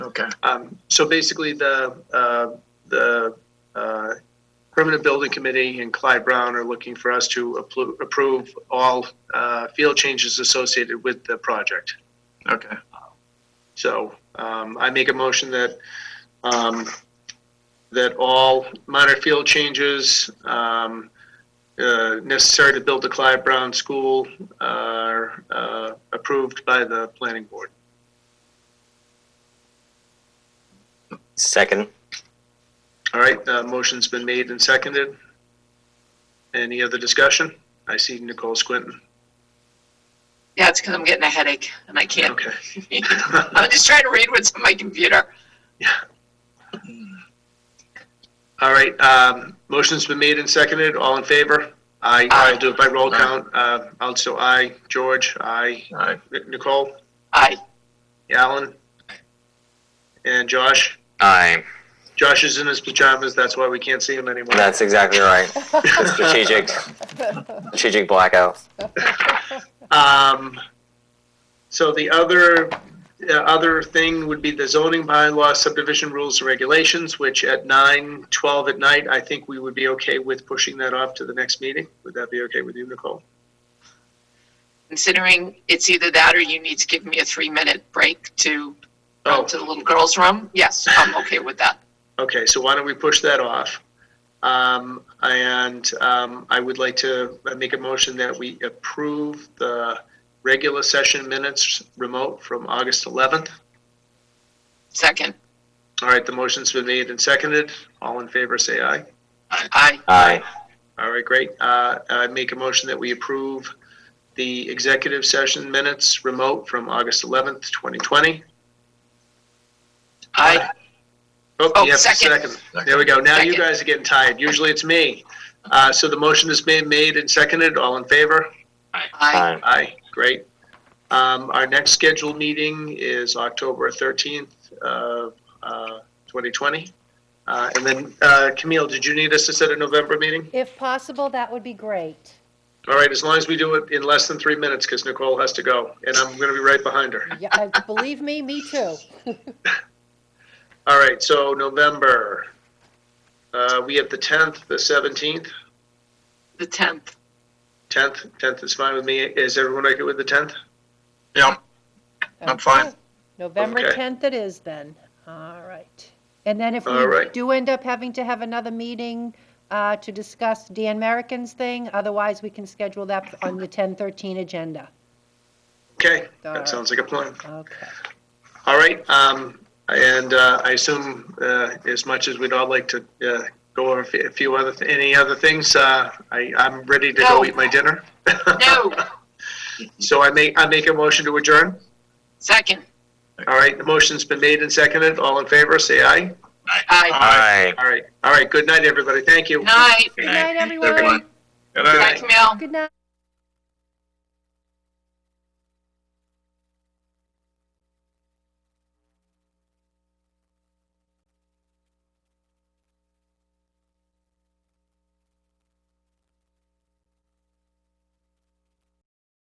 Okay. Um, so basically, the, uh, the, uh, Permanent Building Committee and Clyde Brown are looking for us to appro- approve all, uh, field changes associated with the project. Okay. So, um, I make a motion that, um, that all minor field changes, um, uh, necessary to build the Clyde Brown School are, uh, approved by the planning board. Second. All right, uh, motion's been made and seconded. Any other discussion? I see Nicole squinting. Yeah, it's because I'm getting a headache and I can't. Okay. I'm just trying to read what's on my computer. All right, um, motion's been made and seconded. All in favor? Aye. Aye. I'll do it by roll Aye. count. Uh, also aye. George, aye. All right. Nic- Nicole, I Alan, and Josh. Aye. Josh is in his pajamas, that's why we can't see him anymore. That's exactly right. The strategic, strategic blackout. Um, so the other, uh, other thing would be the zoning bylaw subdivision rules and regulations, which at nine, twelve at night, I think we would be okay with pushing that off to the next meeting. Would that be okay with you, Nicole? considering it's either that or you need to give me a three minute break to Oh, go to the little girls' room. Yes, I'm okay with that. Oh, okay, so why don't we push that off? Um, and, um, I would like to make a motion that we approve the regular session minutes remote from August eleventh. Second, All right, the motion's been made and seconded. All in favor, say aye. I Aye. All right, great. Uh, I make a motion that we approve the executive session minutes remote from August 11th, 2020. I Oh, Oh, you have to second. second. There we go. Now you Second. guys are getting tired. Usually it's me. Uh, So the motion is being made and seconded. All in favor? I Aye. Aye, great. Um, Our next scheduled meeting is October 13th of uh, 2020. Uh, And then uh, Camille, did you need us to set a November meeting? If possible, that would be great. All right, as long as we do it in less than three minutes, because Nicole has to go, and I'm going to be right behind her. Yeah, uh, believe me, me too. All right, so November, uh, we have the 10th, the 17th, the 10th. 10th, 10th is fine with me. Is everyone okay with the 10th? Yeah. I'm fine. Okay. November Okay. 10th it is then. All right. And then if All we right. do end up having to have another meeting uh, to discuss Dan Merrickin's thing, otherwise we can schedule that on the 10:13 agenda. Okay, All right. that sounds like a plan. Okay. All right, um, and, uh, I assume, uh, as much as we'd all like to, uh, go over a fe- a few other, th- any other things, uh, I, I'm ready to go No. eat my dinner. No, So I make, I make a motion to adjourn. second, All right, the motion's been made and seconded. All in favor, say aye. I Aye. All right, all right, good night, everybody. Thank you. Night. Good night, everyone. Good Bye, night. Camille. Good night.